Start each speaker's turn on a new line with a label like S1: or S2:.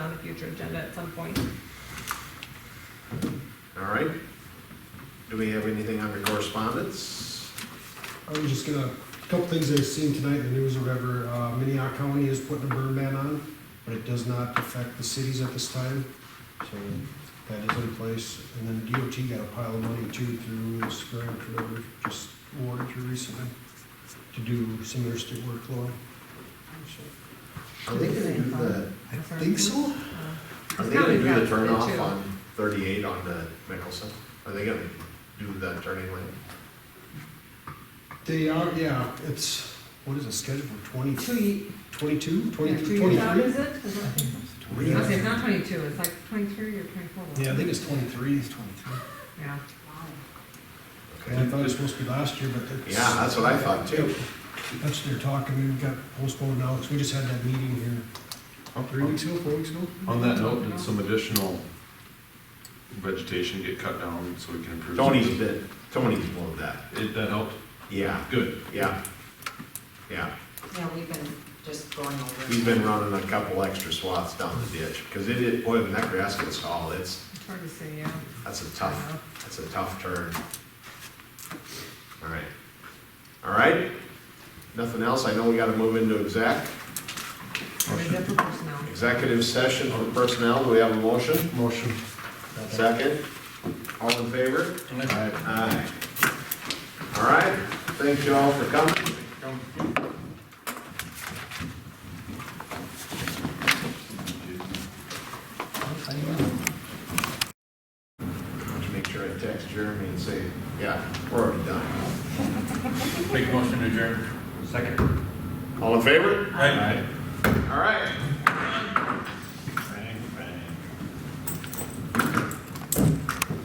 S1: future agenda at some point.
S2: All right. Do we have anything under correspondence?
S3: I was just gonna, a couple things I've seen tonight in the news or whatever, uh, Minnehaha County is putting a burn ban on, but it does not affect the cities at this time, so that is in place. And then DOT got a pile of money too through this grant or whatever, just awarded here recently, to do some interstate workload. So,
S2: Are they gonna do the,
S1: I
S3: Think so?
S2: are they gonna do the turnoff on thirty-eight on the Mickelson? Are they gonna do the turning lane?
S3: They are, yeah, it's, what is it, scheduled for twenty,
S1: Two, ye-
S3: twenty-two,
S1: yeah,
S3: twenty,
S1: two years out,
S3: twenty-three?
S1: is it? Is it? Okay, it's not twenty-two, it's like twenty-three or twenty-four. wasn't
S3: Yeah, I
S1: it?
S3: think it's twenty-three, it's twenty-three.
S1: Yeah.
S3: And I thought it was supposed to be last year, but that's.
S2: Yeah, that's what I thought too.
S3: That's their talk, I mean, we got postponed now, because we just had that meeting here.
S2: Oh,
S3: Three weeks ago, four weeks ago?
S4: On that note, did some additional vegetation get cut down so we can improve?
S2: Tony's been, Tony's blown that.
S4: It, that helped?
S2: Yeah,
S4: Good.
S2: yeah, yeah.
S5: Yeah, we've been just going over.
S2: He's been running a couple extra swaths down the ditch, cause it is, boy, when that grass gets tall, it's,
S1: It's hard to say, yeah.
S2: that's a tough, that's a tough turn. All right. All right? Nothing else? I know we gotta move into exec.
S1: Or the different personnel.
S2: Executive session for personnel, do we have a motion?
S3: Motion.
S2: Second? All in favor? Aye. All right, thank you all for coming. Let me Make sure I text Jeremy and say, yeah, we're already done.
S4: Make motion to adjourn. Second.
S2: All in favor?
S4: Aye.
S2: All right.